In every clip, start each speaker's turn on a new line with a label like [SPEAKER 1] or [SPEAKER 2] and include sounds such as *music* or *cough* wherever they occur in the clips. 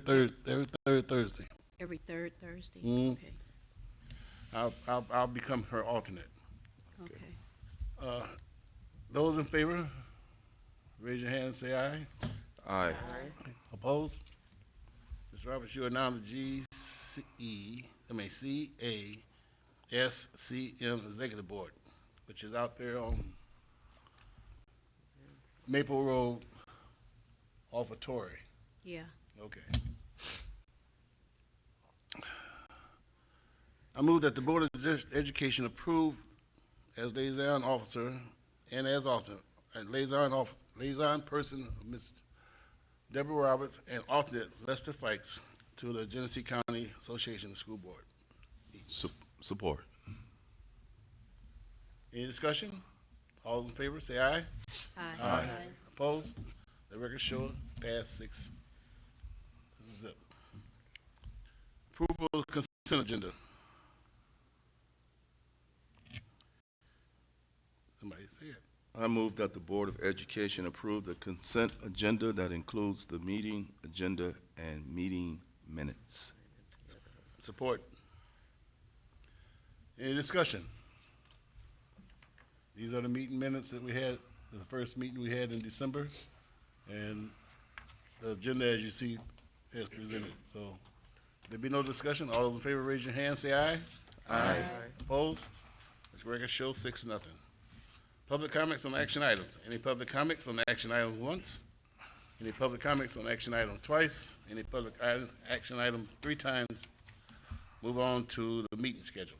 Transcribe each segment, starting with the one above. [SPEAKER 1] Thursday, every third Thursday.
[SPEAKER 2] Every third Thursday?
[SPEAKER 1] Mm.
[SPEAKER 2] Okay,
[SPEAKER 3] I'll, I'll, I'll become her alternate.
[SPEAKER 2] okay.
[SPEAKER 3] Uh, Those in favor, raise your hand and say aye.
[SPEAKER 4] Aye.
[SPEAKER 3] Opposed? Ms. Roberts, you are now the GCE, I mean, CASCM Executive Board, which is out there on Maple Road off of Torrey.
[SPEAKER 2] Yeah,
[SPEAKER 3] Okay. I move that the Board of Edu- Education approve as liaison officer and as alternate, and liaison officer, liaison person, Ms. Deborah Roberts, and alternate Lester Fikes to the Genesee County Association of School Board.
[SPEAKER 4] Sup- Support.
[SPEAKER 3] Any discussion? All in favor, say aye.
[SPEAKER 2] aye.
[SPEAKER 3] Opposed? The record show pass six. Zip. Approval of consent agenda. Somebody say it.
[SPEAKER 4] I move that the Board of Education approve the consent agenda that includes the meeting agenda and meeting minutes.
[SPEAKER 3] Support. Any discussion? These are the meeting minutes that we had, the first meeting we had in December. And the agenda, as you see, is presented. So there be no discussion. All those in favor, raise your hand, say aye. Aye. Opposed? This record shows six, nothing. Public comments on action items. Any public comments on action items once? Any public comments on action item twice? Any public item, action items three times? Move on to the meeting schedule.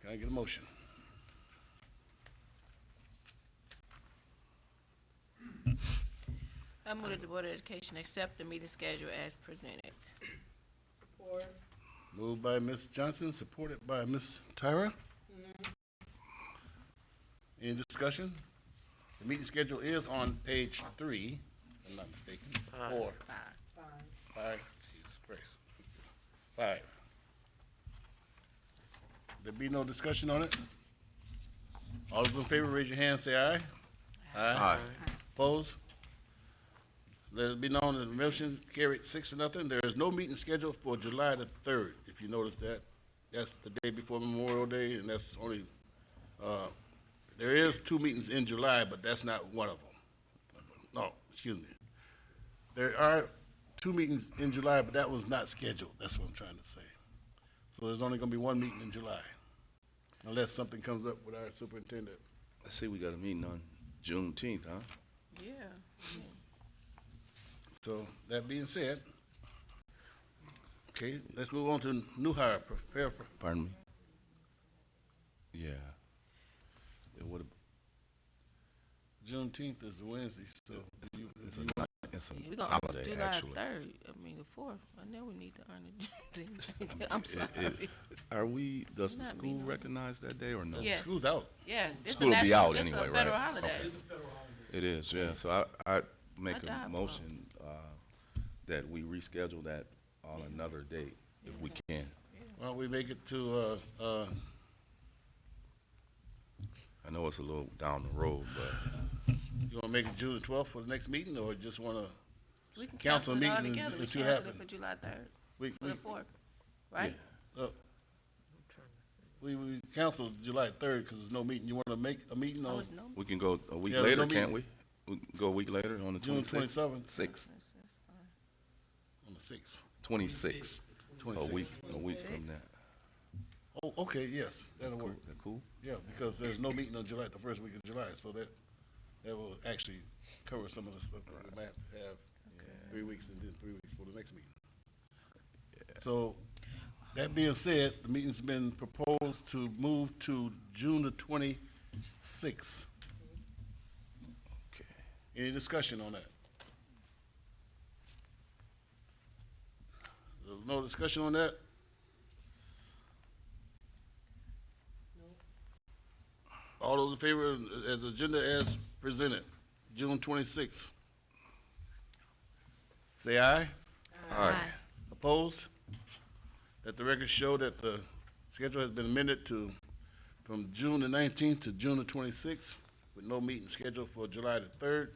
[SPEAKER 3] Can I get a motion?
[SPEAKER 5] I move that the Board of Education accept the meeting schedule as presented.
[SPEAKER 3] Moved by Ms. Johnson, supported by Ms. Tyra. Any discussion? The meeting schedule is on page three, if I'm not mistaken, four. Five, Jesus Christ. Five. There be no discussion on it? All those in favor, raise your hand, say aye.
[SPEAKER 4] Aye.
[SPEAKER 3] Opposed? Let it be known that the motion carried six to nothing. There is no meeting scheduled for July the third, if you notice that. That's the day before Memorial Day, and that's only, uh, there is two meetings in July, but that's not one of them. No, excuse me. There are two meetings in July, but that was not scheduled. That's what I'm trying to say. So there's only gonna be one meeting in July, unless something comes up with our superintendent.
[SPEAKER 4] I see we got a meeting on Juneteenth, huh?
[SPEAKER 5] Yeah.
[SPEAKER 3] So, that being said, okay, let's move on to new hire, prepare for,
[SPEAKER 4] Pardon me? Yeah. It would
[SPEAKER 3] Juneteenth is the Wednesday, so. you-
[SPEAKER 4] it's
[SPEAKER 3] you-
[SPEAKER 4] a, it's a
[SPEAKER 5] We're gonna,
[SPEAKER 4] holiday,
[SPEAKER 5] July
[SPEAKER 4] actually.
[SPEAKER 5] third, I mean, the fourth, I know we need to earn
[SPEAKER 4] *laughs* I
[SPEAKER 5] it.
[SPEAKER 4] mean,
[SPEAKER 5] *laughs* *laughs* I'm
[SPEAKER 4] it-
[SPEAKER 5] sorry.
[SPEAKER 4] it- Are we, does the
[SPEAKER 5] Not me,
[SPEAKER 4] school
[SPEAKER 5] no.
[SPEAKER 4] recognize that day or no?
[SPEAKER 5] Yes.
[SPEAKER 3] School's out.
[SPEAKER 5] Yeah. it's a
[SPEAKER 4] School will be
[SPEAKER 5] national-
[SPEAKER 4] out anyway,
[SPEAKER 5] It's a
[SPEAKER 4] right?
[SPEAKER 5] federal holiday.
[SPEAKER 4] Okay. It is, yeah. So I, I make
[SPEAKER 5] I
[SPEAKER 4] a
[SPEAKER 5] died.
[SPEAKER 4] motion, uh, that we reschedule that on another date if we can.
[SPEAKER 3] Why don't we make it to, uh, uh,
[SPEAKER 4] I know it's a little down the road, but
[SPEAKER 3] you wanna make it June the twelfth for the next meeting, or just wanna,
[SPEAKER 5] We can
[SPEAKER 3] Council
[SPEAKER 5] cancel it all
[SPEAKER 3] meeting and-
[SPEAKER 5] together. We
[SPEAKER 3] and see what
[SPEAKER 5] cancel it
[SPEAKER 3] happen.
[SPEAKER 5] for July third,
[SPEAKER 3] we,
[SPEAKER 5] for the
[SPEAKER 3] we,
[SPEAKER 5] fourth, right?
[SPEAKER 3] uh, we, we canceled July third, cause there's no meeting. You wanna make a meeting
[SPEAKER 5] Oh,
[SPEAKER 3] on
[SPEAKER 5] it's no.
[SPEAKER 4] we can go a week
[SPEAKER 3] Yeah, there's no
[SPEAKER 4] later, can't we? We can go a week later on the
[SPEAKER 3] June
[SPEAKER 4] twenty-sixth?
[SPEAKER 3] twenty-seventh,
[SPEAKER 4] Sixth,
[SPEAKER 3] on the sixth?
[SPEAKER 4] twenty-sixth, a week,
[SPEAKER 3] Twenty-sixth.
[SPEAKER 4] a week from that.
[SPEAKER 3] Oh, okay, yes, that'll
[SPEAKER 4] Cool,
[SPEAKER 3] work.
[SPEAKER 4] that cool?
[SPEAKER 3] Yeah, because there's no meeting on July, the first week of July, so that, that will actually cover some of the stuff that we might have to have three weeks and then three weeks for the next meeting. So, that being said, the meeting's been proposed to move to June the twenty-sixth.
[SPEAKER 4] Okay.
[SPEAKER 3] Any discussion on that? There's no discussion on that? All those in favor of of the agenda as presented, June twenty-sixth? Say aye.
[SPEAKER 2] Aye.
[SPEAKER 3] Opposed? Let the record show that the schedule has been amended to, from June the nineteenth to June the twenty-sixth, with no meeting scheduled for July the third.